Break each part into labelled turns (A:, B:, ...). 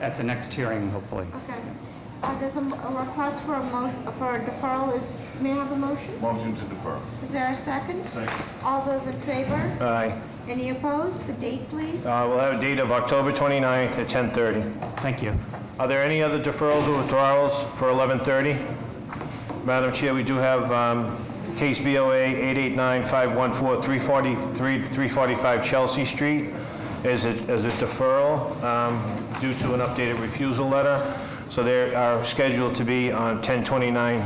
A: at the next hearing, hopefully.
B: Okay. Uh, There's a m- a request for a mo, for a deferral is, may I have a motion?
C: Motion to defer.
B: Is there a second? Second. All those in favor?
D: Aye.
B: Any opposed? The date, please?
D: Uh, We'll have a date of October 29th at 10:30.
A: Thank you.
D: Are there any other deferrals or withdrawals for 11:30? Madam Chair, we do have um, case BOA 889-514, 343 345 Chelsea Street as a as a deferral um, due to an updated refusal letter. So they are scheduled to be on 10/29,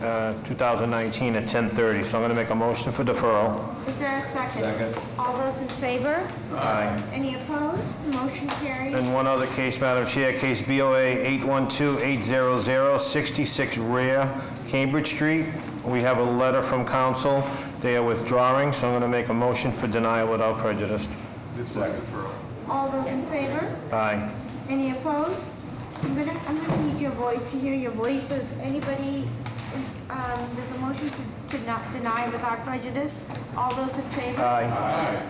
D: uh, 2019 at 10:30. So I'm going to make a motion for deferral.
B: Is there a second?
C: Second.
B: All those in favor?
D: Aye.
B: Any opposed? The motion carries.
D: And one other case, Madam Chair, case BOA 812-800-66 Rear, Cambridge Street. We have a letter from council. They are withdrawing, so I'm going to make a motion for denial without prejudice.
C: This was deferral.
B: All those in favor?
D: Aye.
B: Any opposed? I'm gonna, I'm gonna need your voice, to hear your voices. Anybody, it's, um, there's a motion to, to not deny without prejudice. All those in favor?
D: Aye.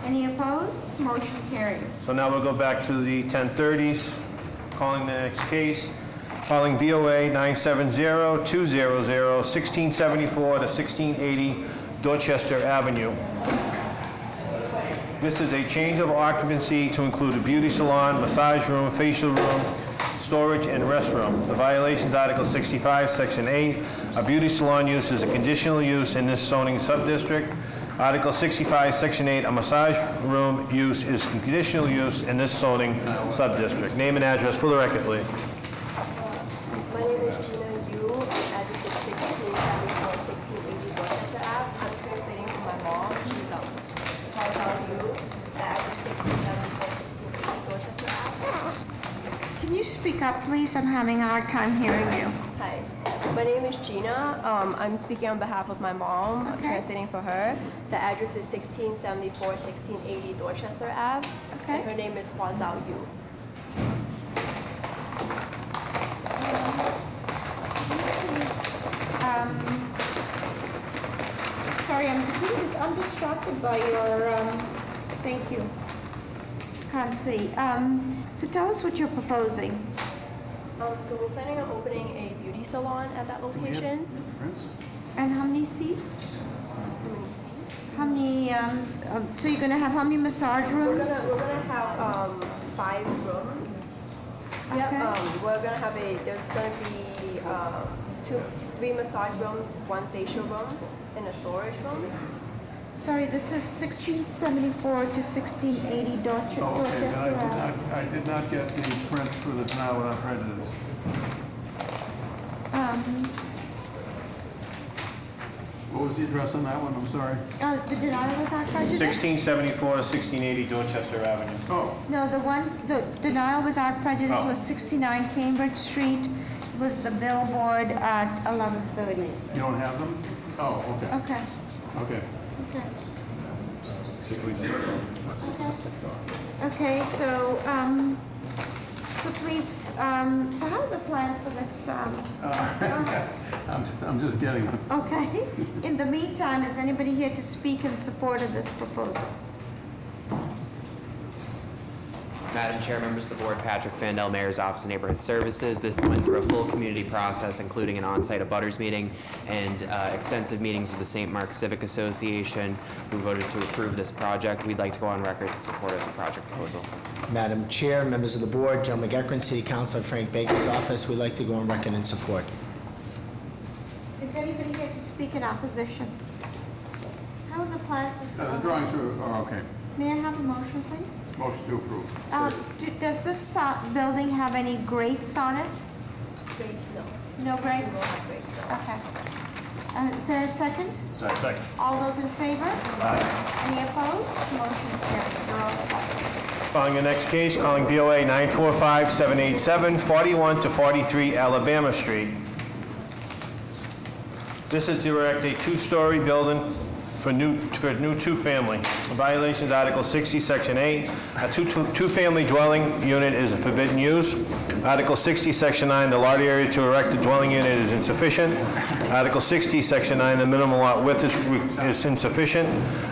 B: Any opposed? Motion carries.
D: So now we'll go back to the 1030s, calling the next case, calling BOA 970-200-1674 to 1680 Dorchester Avenue. This is a change of occupancy to include a beauty salon, massage room, facial room, storage, and restroom. The violations, Article 65, Section 8, a beauty salon use is a conditional use in this zoning subdistrict. Article 65, Section 8, a massage room use is conditional use in this zoning subdistrict. Name and address for the record, please.
E: My name is Gina Yu, I'm at 1674, 1680 Dorchester Ave. I'm translating for my mom, she's out. Hi, how are you? At 1674, 1680 Dorchester Ave.
B: Can you speak up, please? I'm having a hard time hearing you.
E: Hi, my name is Gina. Um, I'm speaking on behalf of my mom. I'm
B: Okay.
E: translating for her. The address is 1674, 1680 Dorchester Ave.
B: Okay.
E: And her name is Hua Zhao Yu.
B: Um, Sorry, I'm, please, I'm distracted by your, um, thank you. Just can't see. Um, So tell us what you're proposing.
E: Um, so we're planning on opening a beauty salon at that location.
B: And how many seats?
E: Let me see.
B: How many, um, um, so you're gonna have how many massage
E: We're
B: rooms?
E: gonna, we're gonna have, um, five rooms. Yep,
B: Okay.
E: um, we're gonna have a, there's gonna be, um, two, three massage rooms, one facial room, and a storage room.
B: Sorry, this is 1674 to 1680 Dorchester
F: Okay, then I
B: Dorchester
F: did
B: Ave.
F: not, I did not get the prints for this now without prejudice.
B: Um,
F: What was the address on that one? I'm sorry.
B: Oh, the denial without prejudice?
D: 1674 to 1680 Dorchester Avenue.
F: Oh,
B: No, the one, the denial without prejudice
D: Oh.
B: was 69 Cambridge Street, was the billboard at 11:30.
F: you don't have them? Oh, okay,
B: Okay,
F: okay.
B: okay. Okay, so, um, so please, um, so how are the plans for this, um, stuff?
F: I'm, I'm just getting uh, them.
B: Okay, in the meantime, is anybody here to speak in support of this proposal?
G: Madam Chair, members of the board, Patrick Fandell, Mayor's Office of Neighborhood Services. This went through a full community process, including an on-site abutters meeting and uh, extensive meetings with the St. Mark Civic Association, who voted to approve this project. We'd like to go on record in support of the project proposal.
H: Madam Chair, members of the board, Joe McEckern, City Council, and Frank Baker's office, we'd like to go on record in support.
B: Is anybody here to speak in opposition? How are the plans, Mr.
F: Uh, The
B: O'Hara?
F: drawings are, are okay.
B: May I have a motion, please?
F: Motion to approve.
B: Um, do- Does this so- building have any grates on it?
E: Great, no,
B: No
E: we will
B: grates?
E: have great.
B: Okay. Uh, Is there a second?
D: Second.
B: All those in favor? Any opposed? Motion carries. You're all set.
D: Calling the next case, calling BOA 945-787-41 to 43 Alabama Street. This is to erect a two-story building for new, for new two-family. Violations Article 60, Section 8. A two- two- two-family dwelling unit is a forbidden use. Article 60, Section 9, the lot area to erect a dwelling unit is insufficient. Article 60, Section 9, the minimum lot width is re- is insufficient.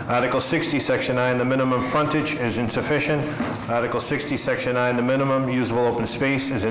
D: Article 60, Section 9, the minimum frontage is insufficient. Article 60, Section 9, the minimum usable open space is